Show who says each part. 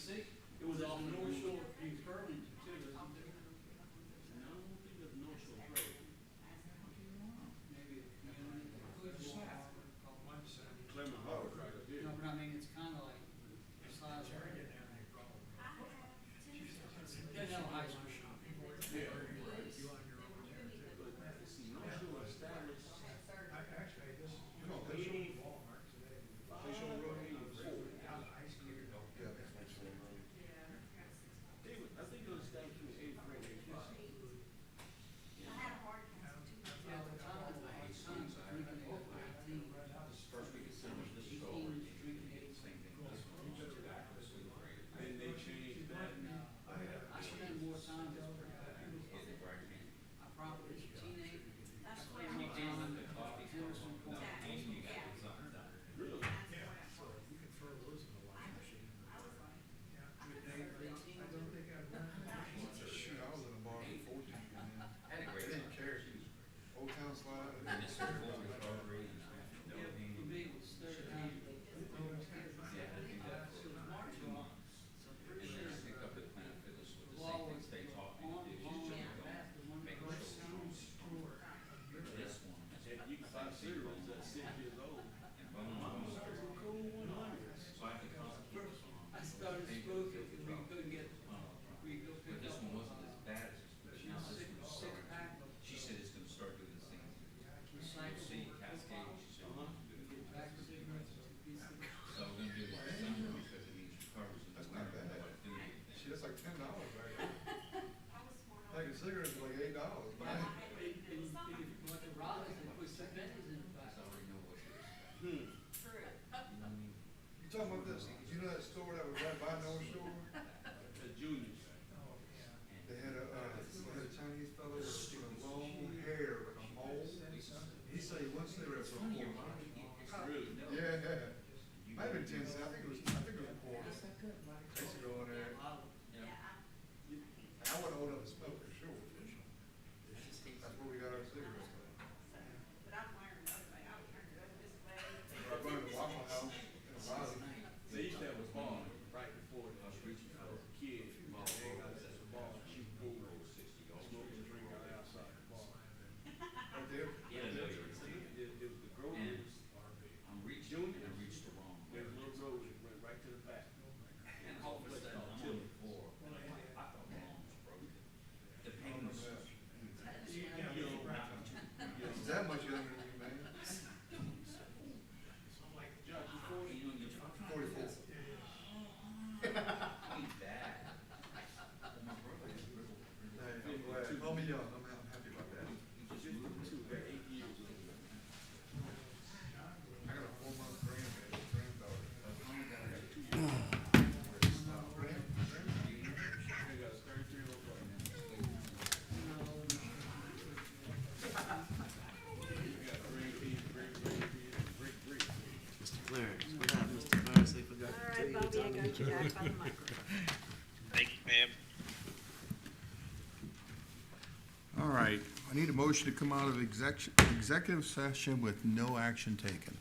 Speaker 1: It was off North Shore of Kingsbury, too. No, it was North Shore Road. Clement Hall was right up here.
Speaker 2: No, but I mean, it's kinda like, besides. There's no high school shopping.
Speaker 1: North Shore established North Shore Road eighty-four.
Speaker 3: Yeah, that's my son, right?
Speaker 1: They was, I think it was established in eighty-four, eighty-five.
Speaker 2: Yeah, the time of my son's drinking at nineteen,
Speaker 3: First week of summer, this
Speaker 2: he
Speaker 3: is over.
Speaker 2: was drinking at
Speaker 3: Same thing.
Speaker 1: Then they changed that.
Speaker 2: No, I spend more time with her.
Speaker 3: Fucking bright man.
Speaker 2: I probably was a teenager.
Speaker 4: That's
Speaker 2: I
Speaker 4: where
Speaker 2: spent more time with Henderson Point.
Speaker 1: Really?
Speaker 2: Eighteen,
Speaker 3: Shoot, I was in a bar at fourteen, man.
Speaker 5: Had a
Speaker 3: I
Speaker 5: great time.
Speaker 3: didn't care. Old Town Slide.
Speaker 5: And
Speaker 3: and then-
Speaker 5: it's sort of what we've already experienced.
Speaker 2: yeah, for me, it was third time.
Speaker 5: Yeah, I think that
Speaker 2: So it was
Speaker 5: for
Speaker 2: March,
Speaker 5: two months.
Speaker 2: so I'm
Speaker 5: And
Speaker 2: pretty
Speaker 5: then
Speaker 2: sure.
Speaker 5: I picked up at Planet Fitness with the
Speaker 2: The
Speaker 5: same
Speaker 2: law was
Speaker 5: things they taught me to
Speaker 2: on,
Speaker 5: do.
Speaker 2: on,
Speaker 5: Just don't
Speaker 2: that's the one
Speaker 5: make
Speaker 2: first
Speaker 5: sure this
Speaker 2: time.
Speaker 5: one. is-
Speaker 1: If you can find cereals at six years old.
Speaker 5: And bone
Speaker 1: My
Speaker 5: on
Speaker 1: mom was
Speaker 5: bone.
Speaker 1: a cool one hundred.
Speaker 5: So I could concentrate on.
Speaker 2: I started smoking because we couldn't get,
Speaker 5: But
Speaker 2: we go pick
Speaker 5: this
Speaker 2: up.
Speaker 5: one wasn't as
Speaker 2: uh,
Speaker 5: bad as this one. She
Speaker 2: Now,
Speaker 5: was
Speaker 2: six,
Speaker 5: just gonna
Speaker 2: six
Speaker 5: start-
Speaker 2: pack of.
Speaker 5: She said it's gonna start doing this thing. You'll
Speaker 2: recyclable
Speaker 5: see Cascade,
Speaker 2: bottles.
Speaker 5: she said.
Speaker 1: Uh-huh.
Speaker 2: Get back to cigarettes, piece of-
Speaker 5: So we're gonna do this this summer because it means she covers in the
Speaker 3: That's not
Speaker 5: winter.
Speaker 3: bad.
Speaker 5: What do anything.
Speaker 3: Shit, that's like ten dollars right there. Like a cigarette is like eight dollars, but I,
Speaker 2: And, and if you bought the rollers and put some veggies in the
Speaker 5: So
Speaker 2: back.
Speaker 5: I already know what it is.
Speaker 1: Hmm.
Speaker 5: You know what I mean?
Speaker 3: you talking about this, you know that store that was right by North Shore?
Speaker 1: The juniors.
Speaker 5: And-
Speaker 3: They had a, uh, they had a Chinese fellow with with long hair, like a mole. He said he once they were at
Speaker 5: It's
Speaker 3: four.
Speaker 5: funny, your
Speaker 3: Yeah,
Speaker 5: mind gets-
Speaker 1: Really?
Speaker 3: yeah.
Speaker 5: you-
Speaker 3: Might have been ten cents, I think it was, I think it was a quarter. I used to go in there,
Speaker 5: Yeah.
Speaker 3: I wouldn't hold up a smoke for sure. That's where we got our cigarettes from. I burned a Waffle House in a Raleigh.
Speaker 1: They used to have a bar right before the
Speaker 5: I was reaching for a
Speaker 1: kids.
Speaker 5: ball,
Speaker 1: They got
Speaker 5: that's
Speaker 1: this
Speaker 5: a
Speaker 1: bar,
Speaker 5: ball,
Speaker 1: she
Speaker 5: she
Speaker 1: pulled,
Speaker 5: rolled sixty yards.
Speaker 1: smoke and drink out outside the bar.
Speaker 3: Right there.
Speaker 5: Yeah, no, you're right.
Speaker 1: It, it was the Groves,
Speaker 5: I'm reaching, and I reached the wrong way.
Speaker 1: there's a little road that went right to the back.
Speaker 5: And all of a sudden, I'm on the floor, and I'm like, I thought my arm was broken. The pain was.
Speaker 1: You know, you know,
Speaker 3: It's that much younger than you, man.
Speaker 1: Judge, before
Speaker 5: You
Speaker 1: you,
Speaker 5: know, you're trying to
Speaker 3: Forty-four.
Speaker 5: beat that. Well, my brother was real-
Speaker 3: Hey, I'm glad. Call me young, I'm, I'm happy about that.
Speaker 5: he just
Speaker 1: just
Speaker 5: moved.
Speaker 1: two, they're eight years old.
Speaker 3: I got a four-month grandbaby, granddaughter. Uh, grand- grand-
Speaker 1: They got a thirty-three year old. They got three kids, three, three kids, three, three.
Speaker 6: Mr. Clarence, what up, Mr. Clarence? They forgot to
Speaker 4: All
Speaker 6: tell
Speaker 4: right,
Speaker 6: you
Speaker 4: Bobby,
Speaker 6: that
Speaker 4: I
Speaker 6: I'm
Speaker 4: got you back by the microphone.
Speaker 7: All right, I need a motion to come out of exec- executive session with no action taken.